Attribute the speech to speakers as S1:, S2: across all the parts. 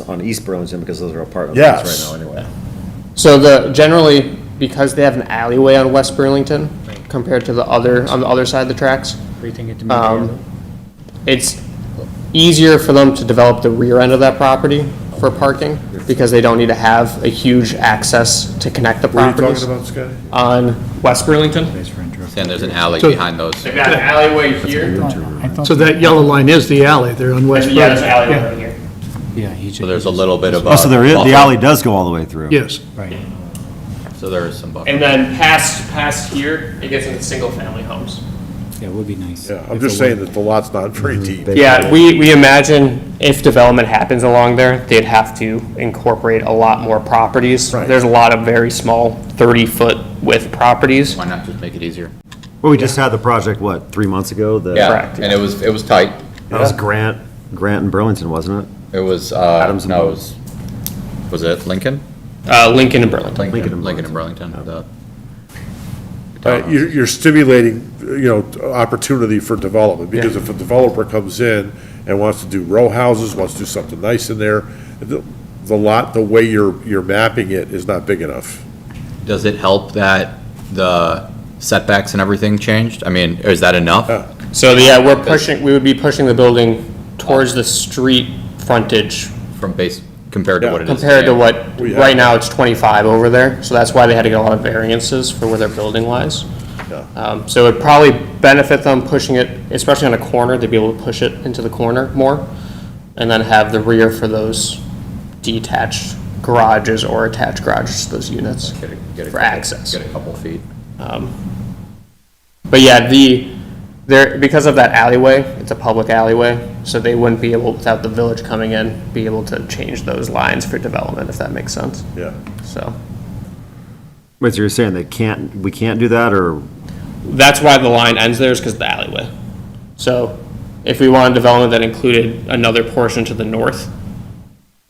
S1: on East Burlington because those are apartment
S2: Yes.
S1: lots right now anyway.
S3: So the, generally, because they have an alleyway on West Burlington compared to the other, on the other side of the tracks,
S4: Everything at the
S5: Uh,
S3: um, it's easier for them to develop the rear end of that property for parking because they don't need to have a huge access to connect the
S2: What are you
S3: properties
S2: talking about, Scotty?
S3: on West Burlington.
S6: And there's an alley
S5: So-
S6: behind those.
S3: They've got an alleyway here,
S5: So that yellow line is the alley there on West.
S3: yeah, there's an
S5: Broad.
S3: alleywway over here.
S4: Yeah, he just.
S6: So there's a little bit of a.
S1: Oh, so there is, the
S6: buffer.
S1: alley does go all the way through?
S5: Yes.
S6: So there is some buffer.
S3: And then past, past here, it gets into single-family homes.
S4: Yeah, it would be nice.
S2: Yeah, I'm just saying that the lot's not very deep.
S3: Yeah, we, we imagine if development happens along there, they'd have to incorporate a lot more properties.
S2: Right.
S3: There's a lot of very small 30-foot width properties.
S6: Why not just make it easier?
S1: Well, we just had the project, what, three months ago? The-
S6: Yeah,
S3: Correct,
S6: and it was, it was tight.
S1: That was Grant, Grant and Burlington, wasn't it?
S6: It was, uh,
S1: Adams and
S6: no, it
S1: Burlington.
S6: was, was it Lincoln?
S3: Uh, Lincoln and Burlington.
S1: Lincoln and
S6: Lincoln and Burlington. the-
S2: Uh, You're you're stimulating, you know, opportunity for development, because if a developer comes in and wants to do row houses, wants to do something nice in there, the the lot, the way you're, you're mapping it is not big enough.
S6: Does it help that the setbacks and everything changed? I mean, is that enough?
S2: Yeah.
S3: So yeah, we're pushing, we would be pushing the building towards the street frontage
S6: From base, compared to
S2: Yeah.
S6: what it is?
S3: compared to
S6: today?
S3: what,
S2: We have-
S3: right now it's 25 over there. So that's why they had to get a lot of variances for where their building lies. Um, So it'd probably benefit them pushing it, especially on a corner, they'd be able to push it into the corner more, and then have the rear for those detached garages or attached garages, to those units,
S6: Get a- get a
S3: for
S6: couple-
S3: access.
S6: Get a couple feet.
S3: But yeah, the, there, because of that alleyway, it's a public alleyway, so they wouldn't be able, without the village coming in, be able to change those lines for development, if that makes sense,
S2: Yeah.
S3: so.
S1: Wait, so you're saying they can't, we can't do that, or?
S3: That's why the line ends there is because of the alleyway. So if we wanted development that included another portion to the north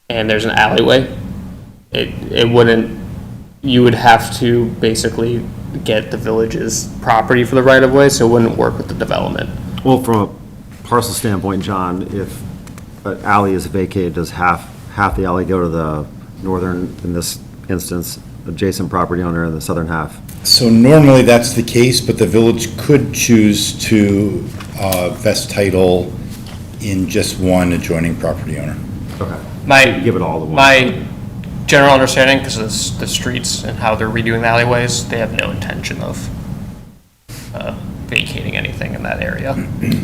S3: and there's an alleyway, it, it wouldn't, you would have to basically get the village's property for the right of way, so it wouldn't work with the development.
S1: Well, from a parcel standpoint, John, if an alley is vacated, does half, half the alley go to the northern, in this instance, adjacent property owner, and the southern half?
S7: So normally, that's the case, but the village could choose to uh, vest title in just one adjoining property owner.
S1: Okay.
S3: My.
S1: Give it all to one.
S3: My general understanding, because of s- the streets and how they're redoing the alleyways, they have no intention of uh, vacating anything in that area.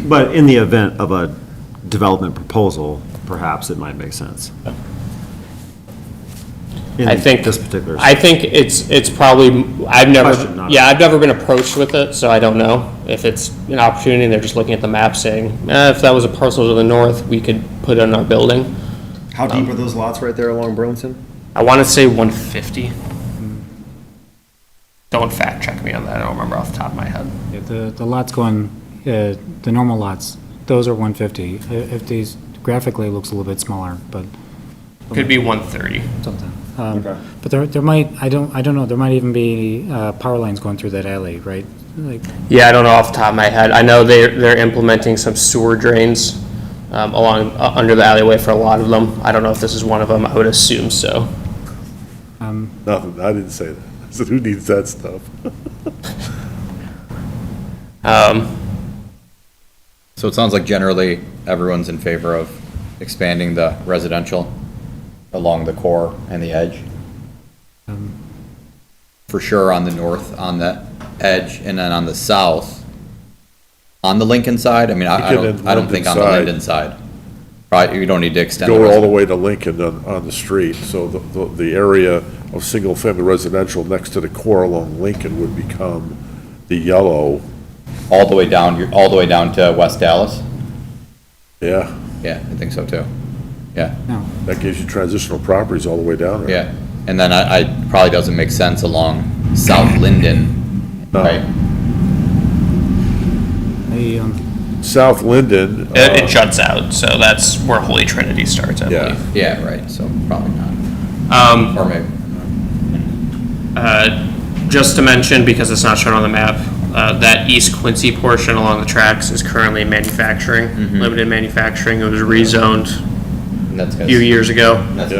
S1: But in the event of a development proposal, perhaps it might make sense. In
S3: I think.
S1: This particular.
S3: I think it's, it's probably, I've never,
S1: Question, not-
S3: yeah, I've never been approached with it, so I don't know. If it's an opportunity and they're just looking at the map saying, eh, if that was a parcel to the north, we could put it in our building. Um,
S1: How deep are those lots right there along Burlington?
S3: I want to say one fifty. Don't fact check me on that, I don't remember off the top of my head.
S4: Yeah, The, the lots going, uh, the normal lots, those are 150. Uh, If these, graphically, it looks a little bit smaller, but
S3: Could be one thirty.
S4: something. Um, But there, there might, I don't, I don't know, there might even be uh, power lines going through that alley, right? Like,
S3: Yeah, I don't know off the top of my head. I know they're, they're implementing some sewer drains um, along, uh, under the alleyway for a lot of them. I don't know if this is one of them, I would assume so.
S2: Nothing, I didn't say that. I said, who needs that stuff?
S6: So it sounds like generally, everyone's in favor of expanding the residential along the core and the edge. Um. For sure on the north, on the edge, and then on the south. On the Lincoln side, I mean, I I
S2: Lincoln
S6: don't,
S2: and
S6: I don't think on the
S2: Linden side.
S6: Linden side. Right, you don't need to extend.
S2: Go all
S6: resi-
S2: the way to Lincoln on, on the street, so the, the- the area of single-family residential next to the core along Lincoln would become the yellow,
S6: All the way down, you're all the way down to West Dallas?
S2: yeah,
S6: Yeah, I think so too. Yeah,
S4: no,
S2: that gives you transitional properties all the way down there.
S6: yeah. And then I, I, probably doesn't make sense along South Linden,
S2: No.
S6: right?
S4: they, um,
S2: South Linden.
S3: It,
S2: uh,
S3: it juts out, so that's where Holy Trinity starts, I
S2: Yeah.
S3: believe.
S6: Yeah, right, so probably not.
S3: Um,
S6: Or maybe,
S3: uh, just to mention, because it's not shown on the map, uh, that East Quincy portion along the tracks is currently manufacturing, limited manufacturing. It was rezoned That's gonna-
S6: few years ago.
S3: That's